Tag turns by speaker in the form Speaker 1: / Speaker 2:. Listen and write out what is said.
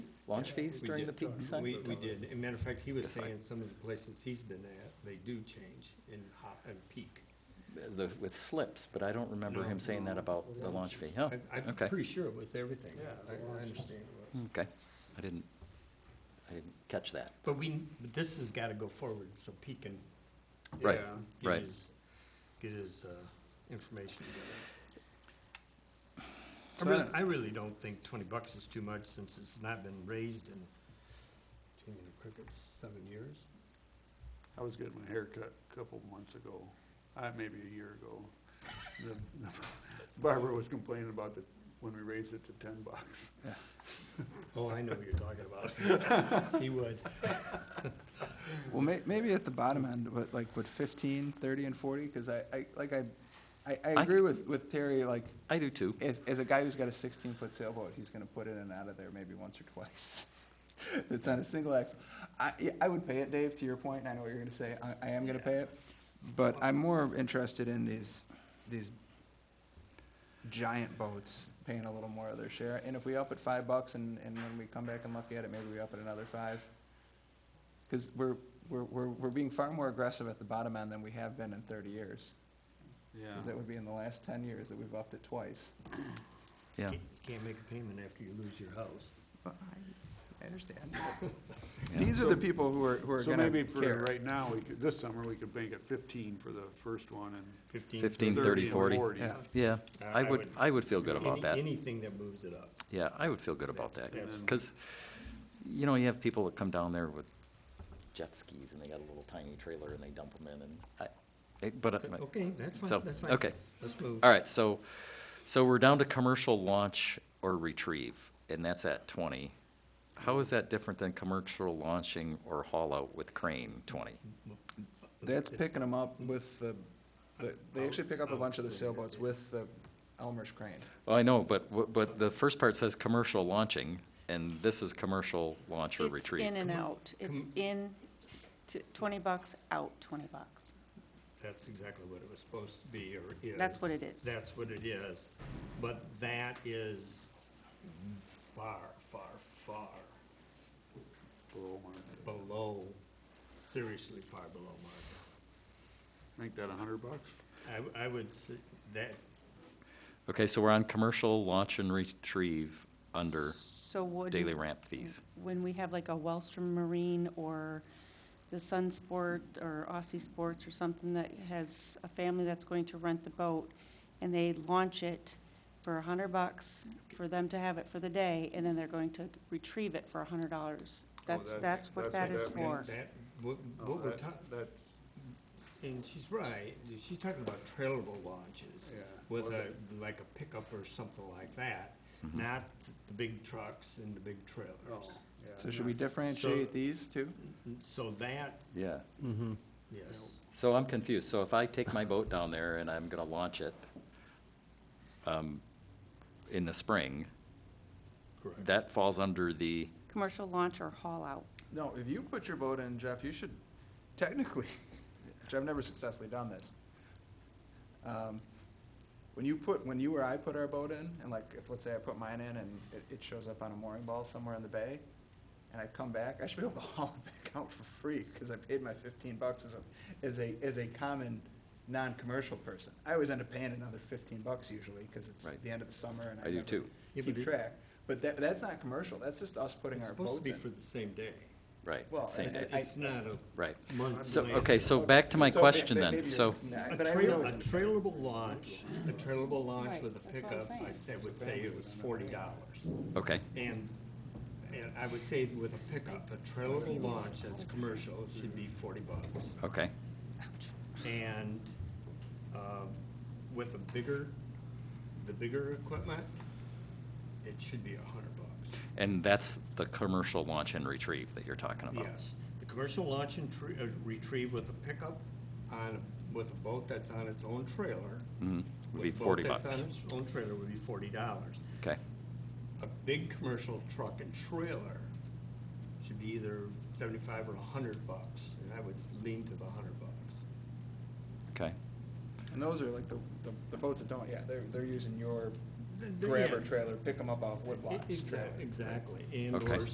Speaker 1: launch fees
Speaker 2: we
Speaker 1: during the
Speaker 2: did.
Speaker 1: peak time?
Speaker 2: We, we did. As a matter of fact, he was
Speaker 1: Decide.
Speaker 2: saying some of the places he's been at, they do change in hot, in peak.
Speaker 1: The, with slips, but I don't remember him
Speaker 2: No.
Speaker 1: saying that about the launch fee. Oh,
Speaker 2: I, I'm
Speaker 1: okay.
Speaker 2: pretty sure it was everything.
Speaker 3: Yeah, the
Speaker 2: I- I
Speaker 3: launches.
Speaker 2: understand it was.
Speaker 1: okay. I didn't, I didn't catch that.
Speaker 2: But we, but this has gotta go forward, so Pete can.
Speaker 1: Right,
Speaker 2: uh, get
Speaker 1: right.
Speaker 2: his- Get his, uh, information together.
Speaker 3: So
Speaker 2: I really,
Speaker 3: I-
Speaker 2: I really don't think twenty bucks is too much since it's not been raised in, too many crickets, seven years.
Speaker 3: I was getting my hair cut a couple months ago, uh, maybe a year ago. The the Barbara was complaining about the, when we raised it to ten bucks.
Speaker 2: Oh, I know what you're talking about. He would.
Speaker 4: Well, may, maybe at the bottom end, but like with 15, 30, and forty, because I, I, like I, I, I
Speaker 1: I-
Speaker 4: agree with, with Terry, like,
Speaker 1: I do too.
Speaker 4: as, as a guy who's got a sixteen-foot sailboat, he's gonna put in and out of there maybe once or twice. It's on a single axle. I, yeah, I would pay it, Dave, to your point, and I know what you're gonna say, I, I am gonna pay it, but I'm more interested in these, these giant boats paying a little more of their share, and if we up it five bucks, and, and when we come back and look at it, maybe we up it another five. Because we're, we're, we're, we're being far more aggressive at the bottom end than we have been in thirty years, because that would be in the last ten years that we've upped it twice.
Speaker 1: Yeah.
Speaker 2: Can't- Can't make a payment after you lose your house.
Speaker 4: Well, I I understand.
Speaker 1: Yeah.
Speaker 4: These are the people who are, who are
Speaker 3: So
Speaker 4: gonna
Speaker 3: maybe for
Speaker 4: care.
Speaker 3: right now, we could, this summer, we could make it fifteen for the first one and
Speaker 2: Fifteen.
Speaker 1: 15,
Speaker 2: 30.
Speaker 1: 30,
Speaker 3: thirty and
Speaker 1: 40.
Speaker 3: forty.
Speaker 4: Yeah.
Speaker 1: Yeah,
Speaker 2: Uh,
Speaker 1: I
Speaker 2: I
Speaker 1: would,
Speaker 2: would-
Speaker 1: I would feel good about
Speaker 2: Any-
Speaker 1: that.
Speaker 2: Anything that moves it up.
Speaker 1: Yeah, I would feel good about that,
Speaker 2: Yes.
Speaker 1: because, you know, you have people that come down there with jet skis, and they got a little tiny trailer, and they dump them in, and I, it- but, uh,
Speaker 2: Okay, that's
Speaker 1: So,
Speaker 2: fine, that's fine.
Speaker 1: okay.
Speaker 2: Let's move.
Speaker 1: all right, so, so we're down to commercial launch or retrieve, and that's at twenty. How is that different than commercial launching or haul out with crane, twenty?
Speaker 4: That's picking them up with the, the- they actually pick up a bunch of the sailboats with the Elmer's crane.
Speaker 1: Well, I know, but, wh- but the first part says commercial launching, and this is commercial launch or
Speaker 5: It's in
Speaker 1: retrieve.
Speaker 5: and out. It's
Speaker 2: Come-
Speaker 5: in, t- 20 bucks, out 20 bucks.
Speaker 2: That's exactly what it was supposed to be, or is.
Speaker 5: That's what it is.
Speaker 2: That's what it is. But that is far, far, far
Speaker 3: Below market.
Speaker 2: below, seriously far below market.
Speaker 3: Make that a hundred bucks?
Speaker 2: I, w- I would say that,
Speaker 1: Okay, so we're on commercial launch and retrieve under
Speaker 5: So would.
Speaker 1: daily ramp fees.
Speaker 5: When we have like a Wellstrom Marine or the Sun Sport or Aussie Sports or something that has a family that's going to rent the boat and they launch it for a hundred bucks for them to have it for the day and then they're going to retrieve it for a hundred dollars. That's,
Speaker 3: that's-
Speaker 5: that's what
Speaker 3: that's
Speaker 5: that
Speaker 3: what
Speaker 5: is
Speaker 3: that means.
Speaker 5: for.
Speaker 2: that, what,
Speaker 3: Oh,
Speaker 2: what we're talking,
Speaker 3: That,
Speaker 2: and she's right, she's talking about trailable launches.
Speaker 3: Yeah.
Speaker 2: With
Speaker 3: Well,
Speaker 2: a, like a pickup or something like that,
Speaker 4: Mm-hmm.
Speaker 2: not the big trucks and the big trailers.
Speaker 3: oh,
Speaker 4: So
Speaker 3: yeah.
Speaker 4: should we differentiate these two?
Speaker 2: So that,
Speaker 1: Yeah.
Speaker 2: yes,
Speaker 1: So I'm confused. So if I take my boat down there and I'm gonna launch it um, in the spring,
Speaker 2: correct.
Speaker 1: that falls under the,
Speaker 5: Commercial launch or haul out.
Speaker 4: No, if you put your boat in, Jeff, you should technically, which I've never successfully done this. Um, When you put, when you or I put our boat in, and like, if, let's say I put mine in and it, it shows up on a mooring ball somewhere in the bay, and I come back, I should be able to haul it back out for free, because I paid my fifteen bucks as a, as a, as a common, non-commercial person. I always end up paying another fifteen bucks usually, because it's
Speaker 1: Right.
Speaker 4: the end of the summer and I
Speaker 1: I do
Speaker 4: never
Speaker 1: too.
Speaker 2: Yeah, but
Speaker 4: keep
Speaker 2: it-
Speaker 4: track. But that, that's not commercial, that's just us putting
Speaker 2: It's
Speaker 4: our
Speaker 2: supposed to
Speaker 4: boats
Speaker 2: be
Speaker 4: in.
Speaker 2: for the same day.
Speaker 1: right,
Speaker 4: Well,
Speaker 1: same
Speaker 4: and-
Speaker 1: thing,
Speaker 2: It's it's not a
Speaker 1: right.
Speaker 2: month.
Speaker 1: So,
Speaker 2: delay.
Speaker 1: okay, so back to my
Speaker 4: So,
Speaker 1: question
Speaker 4: may-
Speaker 1: then.
Speaker 4: may- maybe
Speaker 1: So,
Speaker 4: you're- nah,
Speaker 2: A
Speaker 4: but I
Speaker 2: trail-
Speaker 4: know
Speaker 2: a
Speaker 4: it's-
Speaker 2: trailable launch, a trailable launch
Speaker 5: Right,
Speaker 2: with a
Speaker 5: that's what I'm
Speaker 2: pickup, I
Speaker 5: saying.
Speaker 2: said, would say it was forty dollars.
Speaker 1: okay,
Speaker 2: And, and I would say with a pickup, a trailable launch that's commercial should be forty bucks.
Speaker 1: okay,
Speaker 2: And, um, with a bigger, the bigger equipment, it should be a hundred bucks.
Speaker 1: and that's the commercial launch and retrieve that you're talking about?
Speaker 2: Yes, the commercial launch and tre- uh, retrieve with a pickup on, with a boat that's on its own trailer.
Speaker 1: Mhm, would
Speaker 2: with
Speaker 1: be
Speaker 2: a boat
Speaker 1: 40
Speaker 2: that's
Speaker 1: bucks.
Speaker 2: On its own trailer would be forty dollars.
Speaker 1: Okay,
Speaker 2: A big commercial truck and trailer should be either seventy-five or hundred bucks, and I would lean to the hundred bucks.
Speaker 1: okay,
Speaker 4: And those are like the, the- the boats that don't, yeah, they're, they're using your
Speaker 2: The- the-
Speaker 4: grabber
Speaker 2: yeah.
Speaker 4: trailer, pick them up off
Speaker 2: E-
Speaker 4: Woodlots.
Speaker 2: exac-
Speaker 4: trailer.
Speaker 2: Exactly, and
Speaker 1: Okay.
Speaker 2: or